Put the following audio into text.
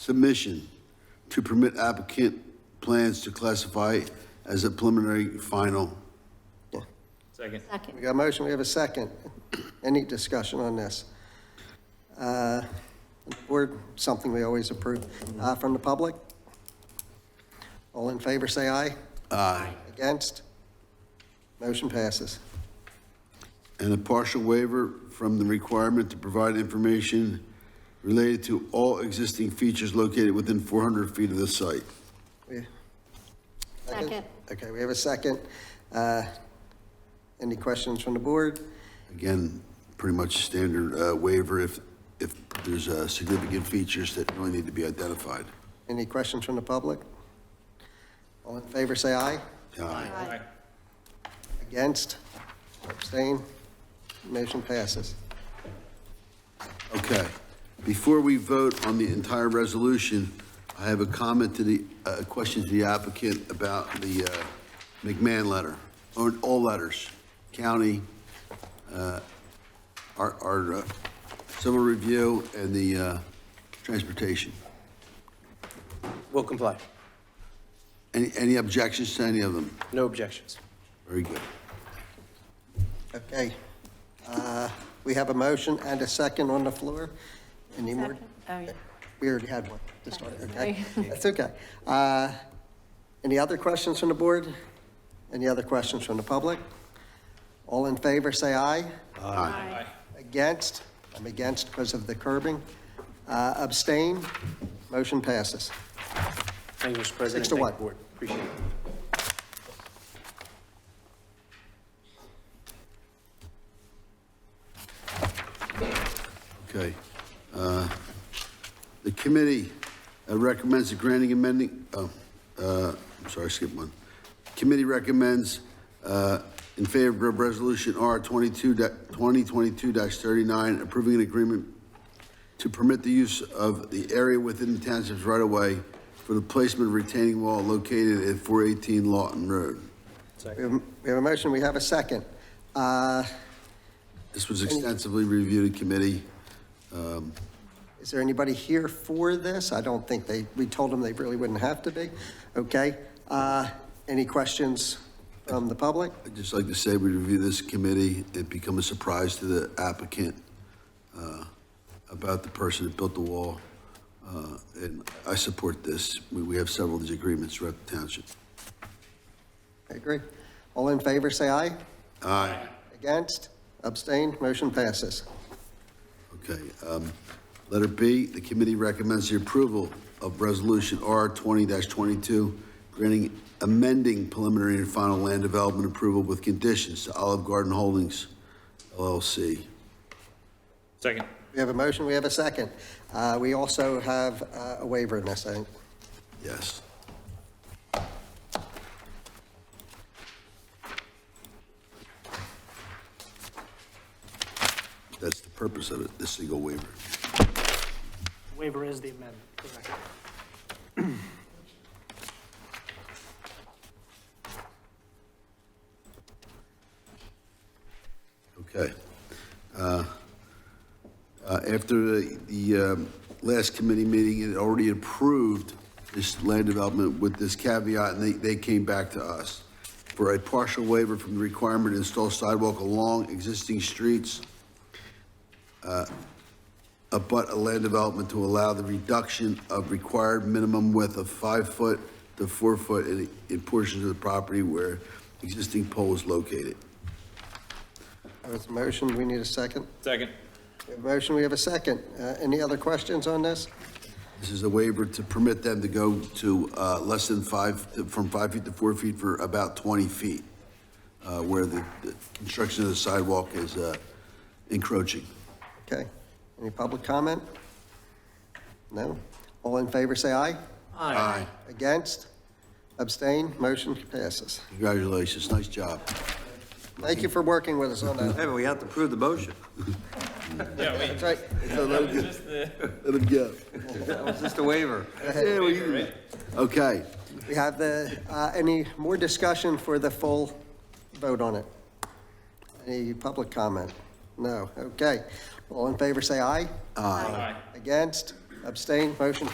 submission to permit applicant plans to classify as a preliminary final. Second. Second. We got a motion, we have a second. Any discussion on this? Uh, Or something we always approve. Uh, From the public? All in favor, say aye. Aye. Against? Motion passes. And a partial waiver from the requirement to provide information related to all existing features located within 400 feet of the site. We- Second. Okay, we have a second. Uh, Any questions from the board? Again, pretty much standard uh, waiver if, if there's uh, significant features that really need to be identified. Any questions from the public? All in favor, say aye. Aye. Aye. Against? Abstain? Motion passes. Okay. Before we vote on the entire resolution, I have a comment to the, uh, a question to the applicant about the uh, McMahon letter, or all letters, county, uh, our, our uh, civil review, and the uh, transportation. Will comply. Any, any objections to any of them? No objections. Very good. Okay. Uh, We have a motion and a second on the floor. Any more? Oh, yeah. We already had one to start, okay? That's okay. Uh, Any other questions from the board? Any other questions from the public? All in favor, say aye. Aye. Against? I'm against because of the curbing. Uh, Abstain? Motion passes. Thank you, Mr. President. Six to Thank one. the board. Appreciate it. Okay. Uh, The committee uh, recommends the granting amending, oh, uh, I'm sorry, I skipped one. Committee recommends uh, in favor of Resolution R 22, da- 2022-39, approving an agreement to permit the use of the area within the township's right-of-way for the placement of retaining wall located at 418 Lawton Road. We have we have a motion, we have a second. Uh, This was extensively reviewed in committee. Is there anybody here for this? I don't think they, we told them they really wouldn't have to be. Okay. uh, Any questions from the public? I'd just like to say, we review this committee, it become a surprise to the applicant uh, about the person that built the wall, Uh, and I support this. We we have several of these agreements throughout the township. I agree. All in favor, say aye. Aye. Against? Abstained? Motion passes. Okay. um, Letter B, the committee recommends the approval of Resolution R 20-22, granting amending preliminary and final land development approval with conditions to Olive Garden Holdings LLC. Second. We have a motion, we have a second. Uh, We also have uh, a waiver in this, I think. Yes. That's the purpose of it, the single waiver. Waiver is the amendment, correct. Okay. Uh, uh, After the, the um, last committee meeting, it already approved this land development with this caveat, and they, they came back to us for a partial waiver from the requirement to install sidewalk along existing streets uh, abut a land development to allow the reduction of required minimum width of five foot to four foot in, in portions of the property where existing pole is located. There was a motion, we need a second. Second. We have a motion, we have a second. Uh, Any other questions on this? This is a waiver to permit them to go to, uh, less than five, to- from five feet to four feet for about twenty feet, uh, where the, the construction of the sidewalk is, uh, encroaching. Okay. Any public comment? No? All in favor, say aye. Aye. Against? Abstain? Motion passes. Congratulations, nice job. Thank you for working with us on that. Hey, but we have to prove the motion. Yeah, wait, That's right. that was just the, Let him go. That was just a waiver. Okay, We have the, uh, any more discussion for the full vote on it? Any public comment? No? Okay. All in favor, say aye. aye. Against? Abstain? Motion